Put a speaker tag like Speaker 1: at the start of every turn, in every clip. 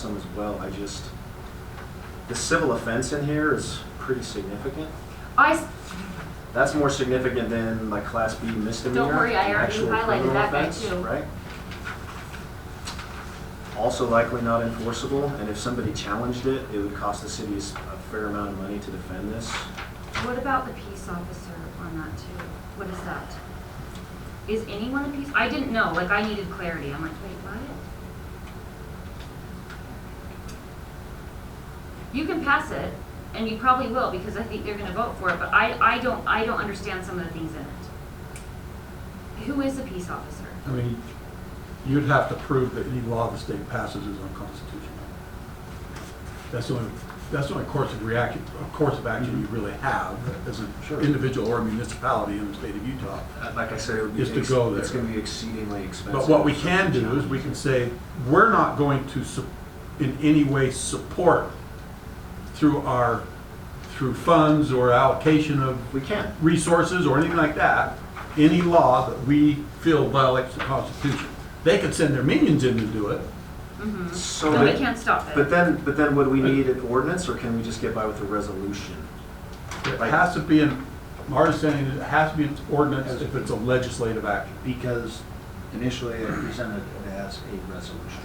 Speaker 1: some as well. I just, the civil offense in here is pretty significant.
Speaker 2: I, s-
Speaker 1: That's more significant than like class B misdemeanor.
Speaker 2: worry, I
Speaker 1: an
Speaker 2: already
Speaker 1: actual
Speaker 2: highlighted
Speaker 1: criminal
Speaker 2: that guy
Speaker 1: offense,
Speaker 2: too.
Speaker 1: Right? Also likely not enforceable, and if somebody challenged it, it would cost the city s- a fair amount of money to defend this.
Speaker 3: What about the peace officer on that too? What is that? Is anyone a peace, I didn't know, like I needed clarity, I'm like, wait, what? You can pass it, and you probably will, because I think they're gonna vote for it, but I, I don't, I don't understand some of the things in it. Who is a peace officer?
Speaker 4: I mean, you'd have to prove that any law the state passes is unconstitutional. That's the only, that's the only course of reaction, of course of action you really have as an
Speaker 1: Sure.
Speaker 4: individual or municipality in the state of Utah.
Speaker 1: Uh, Like I said, it would be.
Speaker 4: Just to
Speaker 1: ex-
Speaker 4: go there.
Speaker 1: It's gonna be exceedingly expensive.
Speaker 4: But what we can do is we can say, we're not going to sup- in any way support through our, through funds or allocation of
Speaker 1: We can.
Speaker 4: resources or anything like that, any law that we feel violates the Constitution. They could send their minions in to do it.
Speaker 2: Mm-hmm.
Speaker 1: So
Speaker 3: So we
Speaker 1: that-
Speaker 3: can't stop it.
Speaker 1: But then, but then would we need an ordinance, or can we just get by with a resolution?
Speaker 4: It has to be in, my understanding is it has to be an ordinance if it's a legislative action.
Speaker 5: because initially it presented it as a resolution.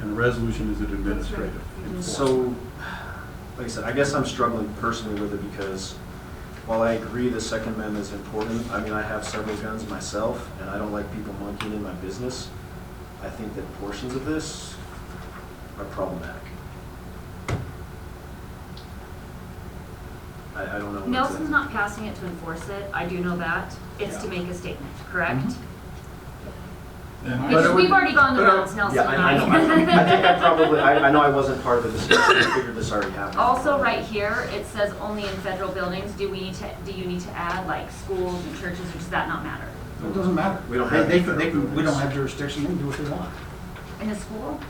Speaker 4: And the resolution is an administrative. enforcement.
Speaker 1: So, like I said, I guess I'm struggling personally with it because while I agree the Second Amendment is important, I mean, I have several guns myself, and I don't like people monkeying in my business. I think that portions of this are problematic. I, I don't know. what to-
Speaker 3: Nelson's not passing it to enforce it, I do know that, it's to
Speaker 5: Yeah.
Speaker 3: make a statement,
Speaker 1: Mm-hmm.
Speaker 3: correct?
Speaker 4: But it
Speaker 3: Because
Speaker 4: would-
Speaker 3: we've already gone the
Speaker 4: but, uh,
Speaker 3: rounds, Nelson
Speaker 1: Yeah,
Speaker 3: and
Speaker 1: I, I know. I I think I probably, I, I know I wasn't part of the discussion, I figured this already happened.
Speaker 3: Also, right here, it says only in federal buildings, do we need to, do you need to add like schools and churches, or does that not matter?
Speaker 5: It doesn't matter.
Speaker 1: We don't
Speaker 5: They-
Speaker 1: have
Speaker 5: They,
Speaker 1: any
Speaker 5: can- they, can- we
Speaker 1: federal
Speaker 5: don't have jurisdiction, they can do what they want.
Speaker 3: In the school?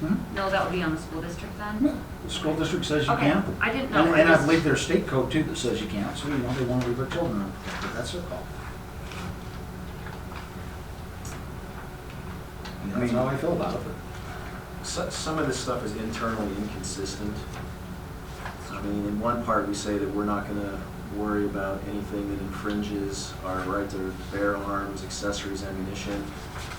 Speaker 5: Hmm?
Speaker 3: No, that would be on the school district then?
Speaker 5: The school district says you
Speaker 3: Okay,
Speaker 5: can.
Speaker 3: I didn't know.
Speaker 5: And, and I
Speaker 3: just-
Speaker 5: believe there's state code too that says you can't, so you know, they want to leave their children unprotected, that's their call. And
Speaker 1: I mean-
Speaker 5: That's how I feel about it.
Speaker 1: So- Some of this stuff is internally inconsistent. I mean, in one part, we say that we're not going to worry about anything that infringes our right to bear arms, accessories, ammunition.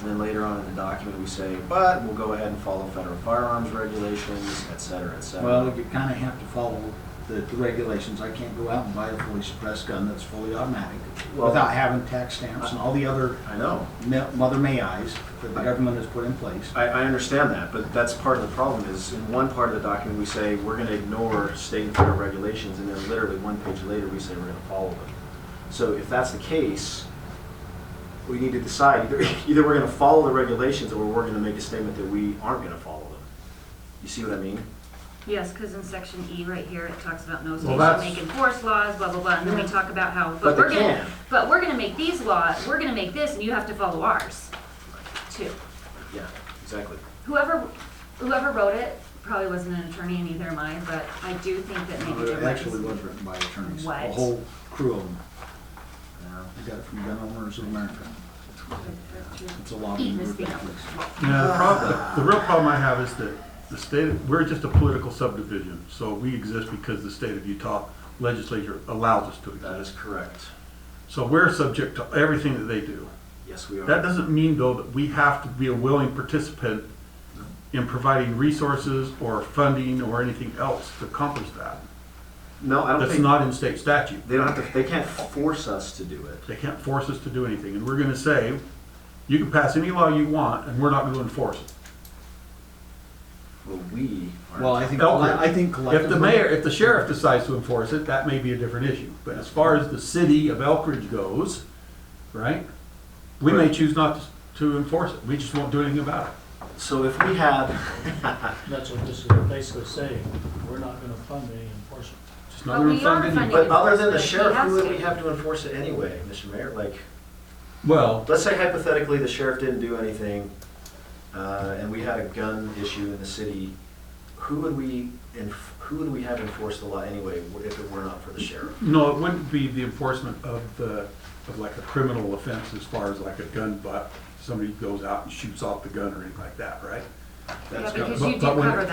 Speaker 1: And then later on in the document, we say, but we'll go ahead and follow federal firearms regulations, et cetera, et cetera.
Speaker 5: Well, you kind of have to follow the, the regulations. I can't go out and buy a fully suppressed gun that's fully automatic
Speaker 1: Well-
Speaker 5: without having tax stamps and all the other
Speaker 1: I know.
Speaker 5: me- mother may eyes that the government has put in place.
Speaker 1: I, I understand that, but that's part of the problem is in one part of the document, we say we're going to ignore state and federal regulations, and then literally one page later, we say we're going to follow them. So if that's the case, we need to decide either, either we're going to follow the regulations or we're going to make a statement that we aren't going to follow them. You see what I mean?
Speaker 3: Yes, because in section E right here, it talks about no state
Speaker 4: Well,
Speaker 3: shall
Speaker 4: that's-
Speaker 3: make enforce laws, blah, blah, blah, and then we talk about how,
Speaker 1: But
Speaker 3: but
Speaker 1: they
Speaker 3: we're
Speaker 1: can.
Speaker 3: gonna, but we're gonna make these laws, we're gonna make this, and you have to follow ours, too.
Speaker 1: Yeah, exactly.
Speaker 3: Whoever, whoever wrote it probably wasn't an attorney, and neither am I, but I do think that maybe
Speaker 5: It
Speaker 3: there
Speaker 5: Uh, actually
Speaker 3: was-
Speaker 5: was written by attorneys, a
Speaker 3: What?
Speaker 5: whole crew of them.
Speaker 1: Yeah.
Speaker 5: I got it from Gun Owners of America. It's a lobby
Speaker 3: Eat this
Speaker 5: group.
Speaker 3: thing up.
Speaker 4: Yeah, the problem, the real problem I have is that the state, we're just a political subdivision, so we exist because the state of Utah legislature allows us to
Speaker 1: That
Speaker 4: exist.
Speaker 1: is correct.
Speaker 4: So we're subject to everything that they do.
Speaker 1: Yes, we are.
Speaker 4: That doesn't mean, though, that we have to be a willing participant in providing resources or funding or anything else to accomplish that.
Speaker 1: No, I don't
Speaker 4: That's
Speaker 1: think,
Speaker 4: not in state statute.
Speaker 1: they don't have to, they can't force us to do it.
Speaker 4: They can't force us to do anything, and we're gonna say, you can pass any law you want, and we're not gonna enforce it.
Speaker 1: Well, we are.
Speaker 5: Well, I think,
Speaker 4: Elk
Speaker 5: I think collectively.
Speaker 4: If the mayor, if the sheriff decides to enforce it, that may be a different issue, but as far as the city of Elk Ridge goes, right? We may choose not to enforce it, we just won't do anything about it.
Speaker 1: So if we had,
Speaker 6: That's what this is basically saying, we're not gonna fund any enforcement.
Speaker 4: Just not
Speaker 3: But
Speaker 4: gonna
Speaker 3: we
Speaker 4: fund
Speaker 3: are
Speaker 4: any-
Speaker 1: But
Speaker 3: funding-
Speaker 1: other than the
Speaker 3: He
Speaker 1: sheriff, who
Speaker 3: has
Speaker 1: would we
Speaker 3: to.
Speaker 1: have to enforce it anyway, Mr. Mayor? Like,
Speaker 4: Well,
Speaker 1: let's say hypothetically, the sheriff didn't do anything, uh, and we had a gun issue in the city, who would we, enf- who would we have enforce the law anyway if it were not for the sheriff?
Speaker 4: No, it wouldn't be the enforcement of the, of like a criminal offense as far as like a gun butt. Somebody goes out and shoots off the gun or anything like that, right?
Speaker 3: Yeah,
Speaker 1: That's
Speaker 3: because
Speaker 4: But-
Speaker 3: you do
Speaker 4: but when-
Speaker 3: cover that.